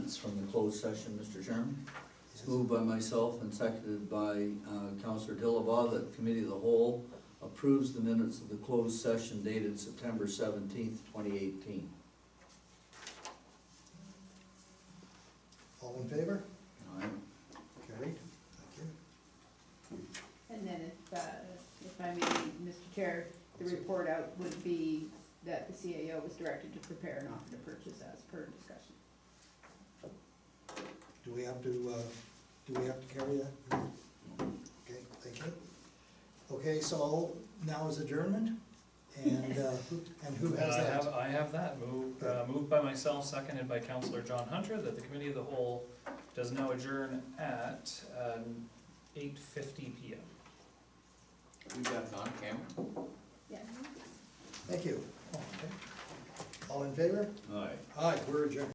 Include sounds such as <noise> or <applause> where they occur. minutes from the closed session, Mr. Chairman. It's moved by myself and seconded by uh, Counselor Dillabaugh that the committee of the whole approves the minutes of the closed session dated September seventeenth, twenty eighteen. All in favor? Carried. Thank you. And then if, uh, if I may, Mr. Chair, the report out would be that the CAO was directed to prepare an offer to purchase as per discussion. Do we have to, uh, do we have to carry that? Okay, thank you. Okay, so now is adjournment, and, uh, and who has I <laughs> have, that? I have that, moved, uh, moved by myself, seconded by Counselor John Hunter, that the committee of the whole does now adjourn at, um, eight fifty P M. We got it on camera? Yeah. Thank you. Oh, okay. All in favor? Aye. Aye, we're adjourned.